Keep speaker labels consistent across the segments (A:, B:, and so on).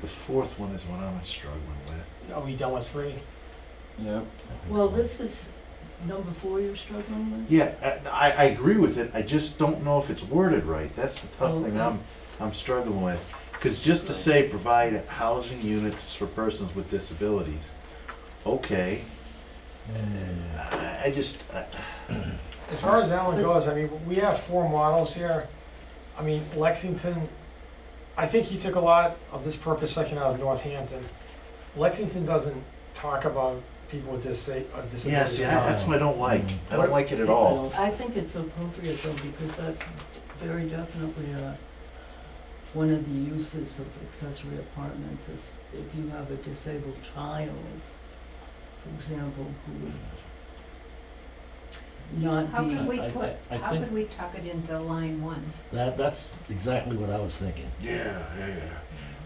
A: The fourth one is one I'm struggling with.
B: Are we done with three?
C: Yep.
D: Well, this is number four you're struggling with?
A: Yeah, I- I, I agree with it, I just don't know if it's worded right, that's the tough
D: Okay.
A: thing I'm, I'm struggling with. Cause just to say provide housing units for persons with disabilities, okay, I, I just, I-
B: As far as that one goes, I mean, we have four models here. I mean, Lexington, I think he took a lot of this purpose section out of Northampton. Lexington doesn't talk about people with disa- uh,
A: yeah,
B: disabilities.
A: see, I- that's what I don't like, I don't like it at all.
D: I think it's appropriate though, because that's very definitely uh one of the uses of accessory apartments is if you have a disabled child, for example, who would not
E: How
D: be.
E: could we
C: I- I-
E: put,
C: I
E: how
C: think-
E: could we tuck it into line one?
C: That, that's exactly what I was thinking.
A: Yeah, yeah, yeah.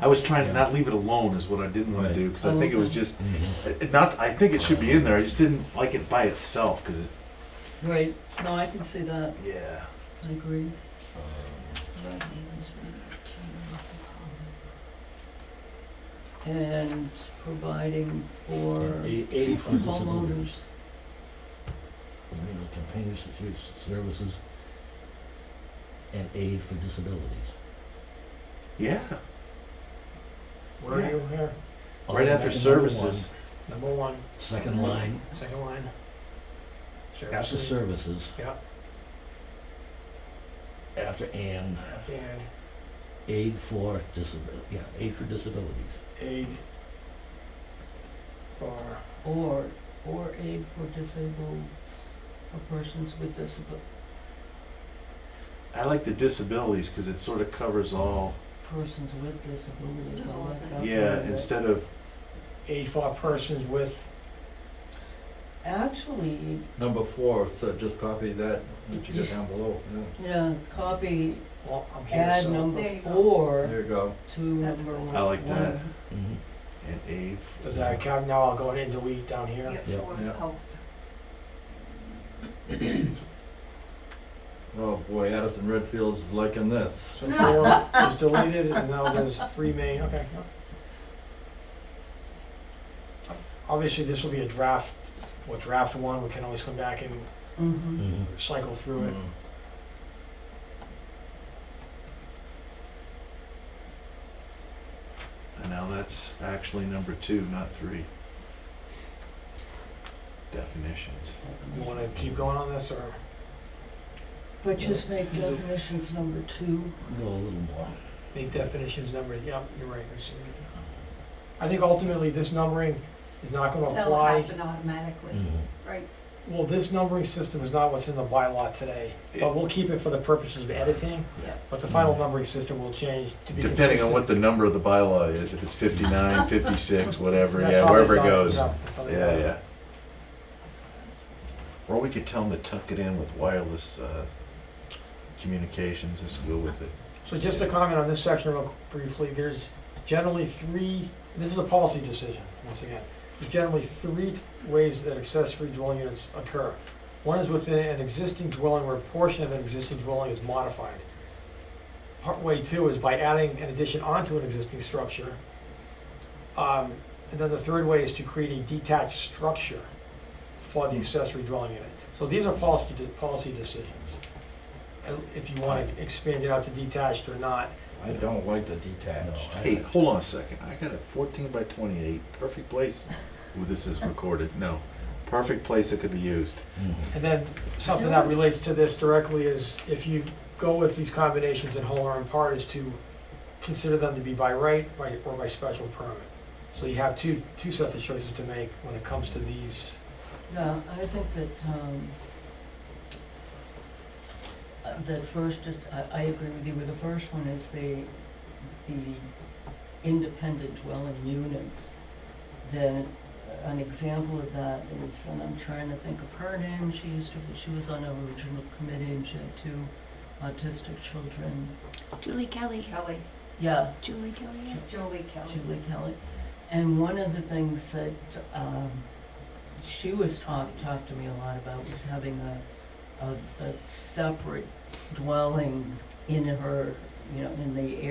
A: I was trying to not leave it alone is what I didn't wanna
C: Right.
A: do, cause I think it was just,
C: Mhm.
A: it- it not, I think it should be in there, I just didn't like it by itself, cause it,
D: Right, no, I can see that,
A: yeah.
D: I agree. And providing for
C: A- Aid for
D: homeowners.
C: disabilities, you know, continuous use services, and aid for disabilities.
A: Yeah,
B: Where are you here?
A: right after
C: Automatic number
A: services.
B: Number one,
C: one, Second line,
B: second line.
C: after
B: Services.
C: services.
B: Yeah.
C: After and,
B: And
C: aid for disability, yeah, aid for disabilities.
B: aid for
D: Or, or aid for disabled, or persons with disability,
A: I like the disabilities because it sort of covers all.
D: persons with disabilities, I like that.
A: Yeah,
D: part of it.
A: instead of
B: aid for persons with,
D: Actually,
F: Number four, so just copy that,
D: what
F: that
D: you
F: you
D: got
F: got down below,
D: yeah, copy,
B: well, I'm here,
D: add
B: so.
D: number
E: There you go.
D: four
F: There you go.
D: to number
E: good.
D: one.
A: I like that.
D: one.
C: Mhm.
A: an aid.
B: Does that count? Now I'll go ahead and delete down here.
E: Yep,
C: Yeah.
E: four.
F: Yeah.
E: Oh,
F: Oh boy, Addison Redfield's liking this.
B: So four is deleted, and now there's three main, okay. yeah. Obviously, this will be a draft, well, draft one, we can always come back and
D: Mhm.
C: Mhm.
B: cycle through it.
F: Mm.
A: And now that's actually number two, not three. Definitions.
D: Mm-hmm.
B: You wanna keep going on this, or?
D: But just make definitions number two,
C: Go a little more.
B: Make definitions numbered, yep, you're right, I see. I think ultimately, this numbering is not gonna
E: That'll
B: apply,
E: happen automatically,
C: Mhm.
E: right?
B: well, this numbering system is not what's in the bylaw today, but we'll keep it for the purposes of editing,
E: Yeah.
B: but the final numbering system will change to be consistent.
A: Depending on what the number of the bylaw is, if it's 59, 56, whatever,
B: That's how
A: yeah,
B: they
A: wherever it
B: done
A: goes. Yeah,
B: Yeah, that's how they done it.
A: yeah. Or we could tell them to tuck it in with wireless uh, communications. Just go with it.
B: So just to comment on this section real briefly, there's generally three, this is a policy decision, once again. There's generally three ways that accessory dwelling units occur. One is within an existing dwelling where a portion of an existing dwelling is modified. Part way two is by adding an addition onto an existing structure. Um, and then the third way is to create a detached structure for the accessory dwelling unit. So these are policy, de- policy decisions. And If you wanna expand it out to detached or not,
F: I don't like the
C: No,
F: detached.
C: I-
A: Hey, hold on a second. I got a 14 by 28, perfect place. Ooh, this is recorded. No, perfect place it could be used.
C: Mhm.
B: And then something that
D: Yes.
B: relates to this directly is if you go with these combinations in whole or in part is to consider them to be by right by, or by special permit. So you have two, two sets of choices to make when it comes to these.
D: yeah, I think that, um, uh, that first, is- I, I agree with you, with the first one is the, the independent dwelling units. Then uh, an example of that is, and I'm trying to think of her name, she used to, be- she was on our original committee and she had two autistic children.
G: Julie Kelly.
E: Kelly,
D: Yeah,
G: Julie Kelly. yeah.
E: Julie Kelly.
D: Julie Kelly. And one of the things that um, she was talked, talked to me a lot about was having a, a, a separate dwelling in her, you know, in the